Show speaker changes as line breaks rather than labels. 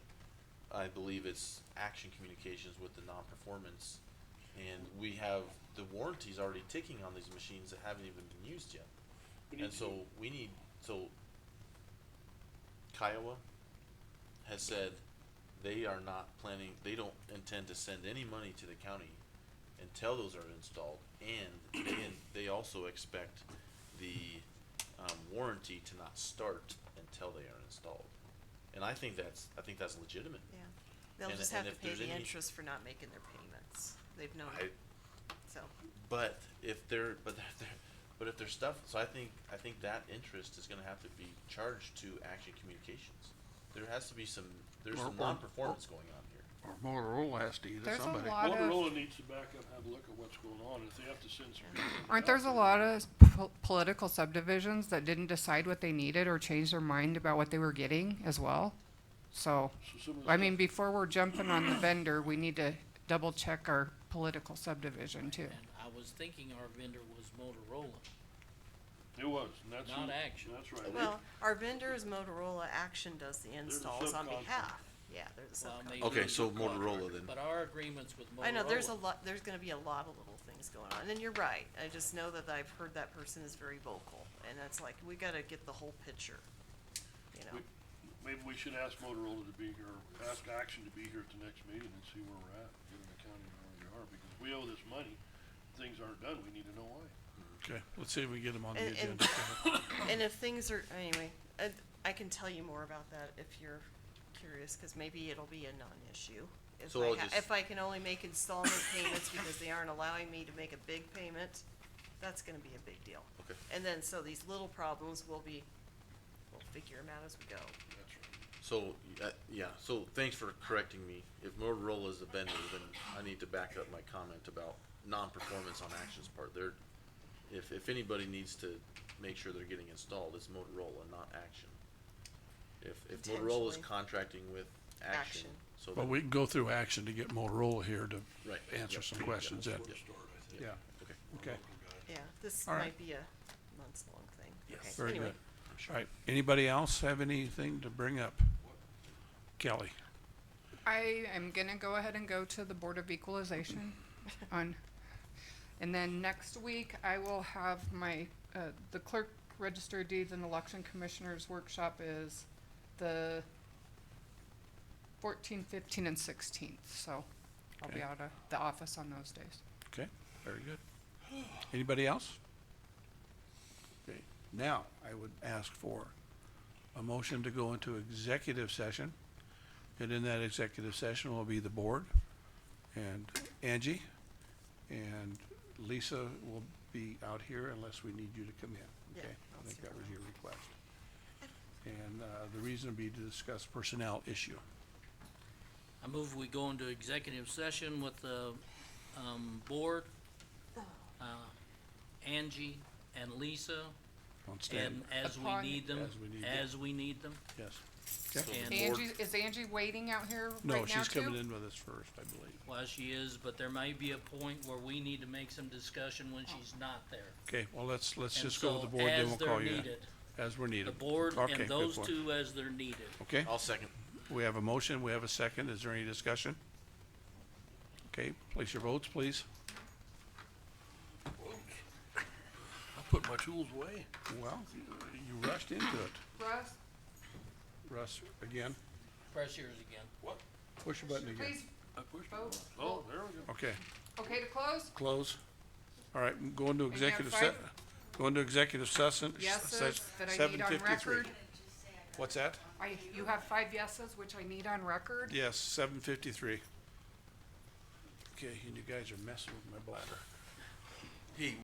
I believe it's Action Communications with the non-performance. And we have the warranties already ticking on these machines that haven't even been used yet.
We need
And
to-
so we need, so Kiowa has said they are not planning, they don't intend to send any money to the county until those are installed. And they, they also expect the, um, warranty to not start until they are installed. And I think that's, I think that's legitimate.
Yeah, they'll
And-
just
and
have to
if
pay
there's
the
any-
interest for not making their payments, they've known
I,
it, so,
But if they're, but if they're, but if there's stuff, so I think, I think that interest is gonna have to be charged to Action Communications. There has to be some, there's
Or-
some
or-
non-performance going on here.
Or Motorola has to either,
There's a
somebody.
lot of-
Motorola needs to back up, and have a look at what's going on, if they have to send some. people
Aren't
out
there's a
there,
lot of po- political subdivisions that didn't decide what they needed or change their mind about what they were getting as well? So,
so some of the
I mean,
stuff-
before we're jumping on the vendor, we need to double check our political subdivision too.
And I was thinking our vendor was Motorola.
It was, and that's.
Not
who-
Action.
That's right.
well, our vendor is Motorola, Action does the
a
installs on
subcontract.
behalf, yeah, there's a
Well,
subcontract.
maybe
Okay,
we
so
should
Motorola
contract,
then.
But our agreement's with Motorola.
I know, there's a lot, there's gonna be a lot of little things going on, and you're right, I just know that I've heard that person is very vocal, and it's like, we gotta get the whole picture, you know?
We- Maybe we should ask Motorola to be here, ask Action to be here at the next meeting and see where we're at, given the county and where we are, because we owe this money. Things aren't done, we need to know why.
Okay, let's see if we can get them on the
And- and-
agenda.
And if things are, anyway, I, I can tell you more about that if you're curious, cause maybe it'll be a non-issue. If
So
I
I'll
ha-
just-
if I can only make installment payments because they aren't allowing me to make a big payment, that's gonna be a big deal.
Okay.
And then, so these little problems will be, we'll figure them out as we go.
That's right.
So, uh, yeah, so thanks for correcting me. If Motorola is the vendor, then I need to back up my comment about non-performance on Action's part. They're, if, if anybody needs to make sure they're getting installed, it's Motorola, not Action. If, if Motorola's
Potentially.
contracting with Action,
Action.
so.
But
that-
we can go through action to get Motorola here
Right,
to answer
yep,
some
yep,
questions then.
yep, yep,
Yeah,
Okay.
okay.
Yeah, this
All right.
might be a months-long thing.
Yes.
Okay,
Very
anyway.
good. All right, anybody else have anything to bring up? Kelly?
I am gonna go ahead and go to the Board of Equalization on, and then next week I will have my, uh, the clerk register of deeds and election commissioners workshop is the fourteen, fifteen, and sixteenth, so I'll be
Okay.
out of the office on those days.
Okay, very good. Anybody else? Okay, now, I would ask for a motion to go into executive session. And in that executive session will be the board and Angie. And Lisa will be out here unless we need you to come in,
Yeah,
okay?
I'll
I think
see
that
her.
was your request. And, uh, the reason would be to discuss personnel issue.
I move we go into executive session with the, um, board, uh, Angie and Lisa,
On stand,
and as we
Upon-
need them,
As we need them.
as we need them,
yes.
So
Okay.
the board-
Angie, is Angie waiting out here right now too?
No, she's coming in with us first, I believe.
while she is, but there may be a point where we need to make some discussion when she's not there.
Okay, well, let's, let's
And
just go with
so
the board, then
as
we'll
they're
call you in.
needed,
As we're needed.
The board
Okay,
and
good
those
point.
two as they're needed.
Okay,
I'll second.
we have a motion, we have a second, is there any discussion? Okay, place your votes, please.
I put my tools away.
Well, you rushed into it.
Russ,
Russ, again,
Press yours again.
push your button again.
please,
I pushed it.
vote,
Oh, there we go.
Okay,
okay to close?
close. All right, go into
have
executive se-
five?
go into executive session.
Yeses that I need on record.
What's that?
I, you have five yeses, which I need on record.
Yes, seven fifty-three. Okay, and you guys are messing with my bladder.
Hey,